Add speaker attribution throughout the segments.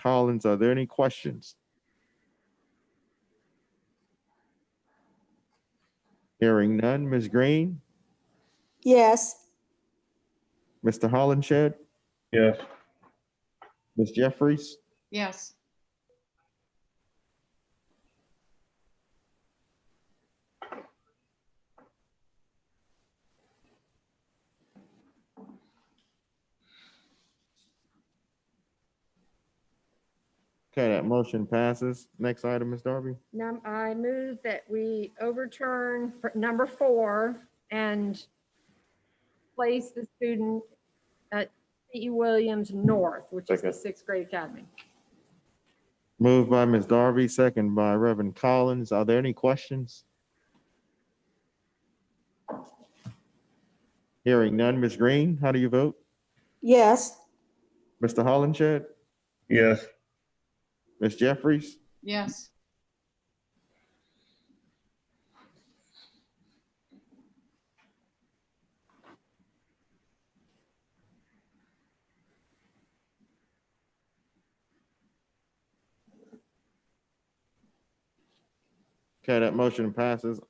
Speaker 1: Collins. Are there any questions? Hearing none. Ms. Green,
Speaker 2: yes,
Speaker 1: Mr. Hollenshed,
Speaker 3: yes,
Speaker 1: Ms. Jeffries,
Speaker 4: yes,
Speaker 1: Okay, that motion passes. Next item, Ms. Darby.
Speaker 5: Num, I move that we overturn pr- number four and place the student at C.E. Williams North, which is
Speaker 3: Second.
Speaker 5: the sixth grade academy.
Speaker 1: Moved by Ms. Darby, second by Reverend Collins. Are there any questions? Hearing none. Ms. Green, how do you vote?
Speaker 2: yes,
Speaker 1: Mr. Hollenshed,
Speaker 3: yes,
Speaker 1: Ms. Jeffries,
Speaker 4: yes,
Speaker 1: Okay, that motion passes.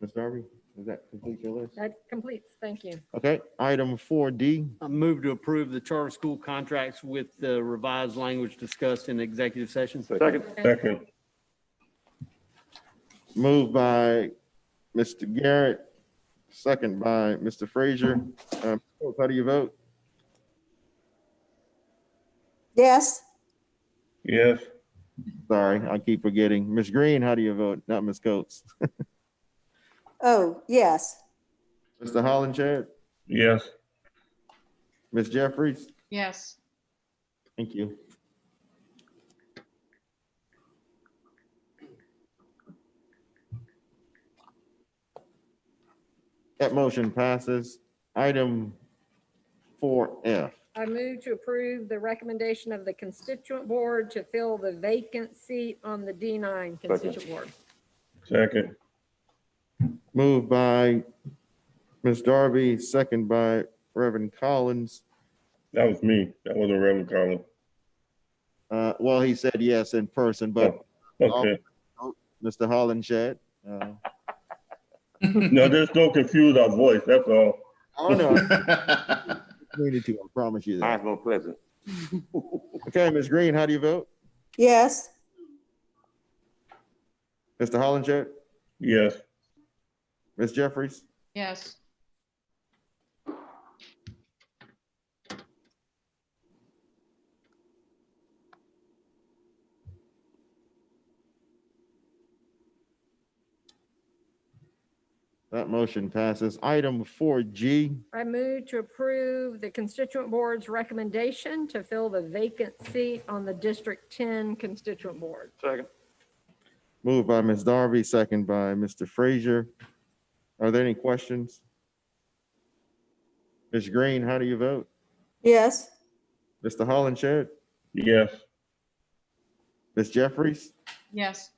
Speaker 1: Ms. Darby, does that complete your list?
Speaker 5: That completes, thank you.
Speaker 1: Okay, item four D,
Speaker 6: I move to approve the charter school contracts with the revised language discussed in executive session.
Speaker 3: Second. second,
Speaker 1: moved by Mr. Garrett, second by Mr. Frazier. Um, How do you vote?
Speaker 2: yes,
Speaker 3: yes,
Speaker 1: Sorry, I keep forgetting. Ms. Green, how do you vote? Not Ms. Coates.
Speaker 2: oh, yes,
Speaker 1: Mr. Hollenshed,
Speaker 3: yes,
Speaker 1: Ms. Jeffries,
Speaker 4: yes,
Speaker 1: thank you. That motion passes. Item four F.
Speaker 5: I move to approve the recommendation of the constituent board to fill the vacant seat on the D9 constituent board.
Speaker 3: second,
Speaker 1: Moved by Ms. Darby, second by Reverend Collins.
Speaker 3: that was me, that wasn't Reverend Carlin.
Speaker 1: Uh, Well, he said yes in person, but
Speaker 3: Okay,
Speaker 1: Mr. Hollenshed. uh,
Speaker 3: no, just don't confuse our voice, that's all.
Speaker 1: I don't know. We need to, I promise you that.
Speaker 7: Hinesville Pleasant,
Speaker 1: Okay, Ms. Green, how do you vote?
Speaker 2: yes,
Speaker 1: Mr. Hollenshed,
Speaker 3: Yes,
Speaker 1: Ms. Jeffries?
Speaker 4: yes,
Speaker 1: That motion passes. Item four G,
Speaker 5: I move to approve the constituent board's recommendation to fill the vacant seat on the District 10 constituent board.
Speaker 7: second,
Speaker 1: moved by Ms. Darby, second by Mr. Frazier. Are there any questions? Ms. Green, how do you vote?
Speaker 2: yes,
Speaker 1: Mr. Hollenshed,
Speaker 3: yes,
Speaker 1: Ms. Jeffries?
Speaker 4: yes,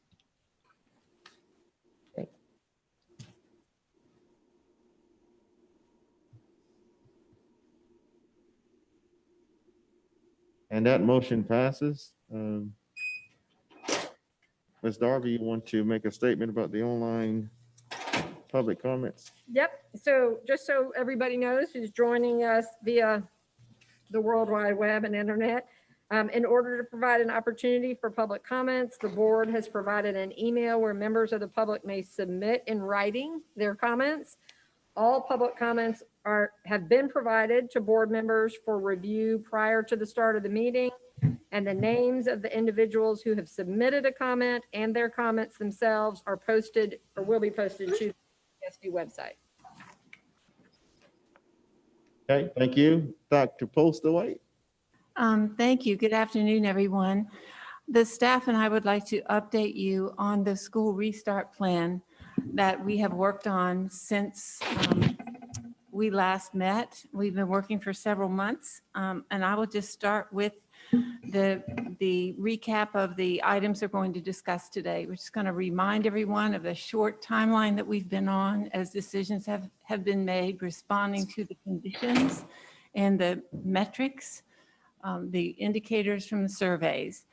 Speaker 1: And that motion passes. Um, Ms. Darby, you want to make a statement about the online public comments?
Speaker 5: Yep, so just so everybody knows who's joining us via the World Wide Web and Internet, um, in order to provide an opportunity for public comments, the board has provided an email where members of the public may submit in writing their comments. All public comments are, have been provided to board members for review prior to the start of the meeting. And the names of the individuals who have submitted a comment and their comments themselves are posted or will be posted to the SD website.
Speaker 1: Okay, thank you. Dr. Postaway?
Speaker 8: Um, Thank you. Good afternoon, everyone. The staff and I would like to update you on the school restart plan that we have worked on since um, we last met. We've been working for several months, um, and I will just start with the, the recap of the items we're going to discuss today. We're just going to remind everyone of the short timeline that we've been on as decisions have, have been made, responding to the conditions and the metrics um, the indicators from the surveys.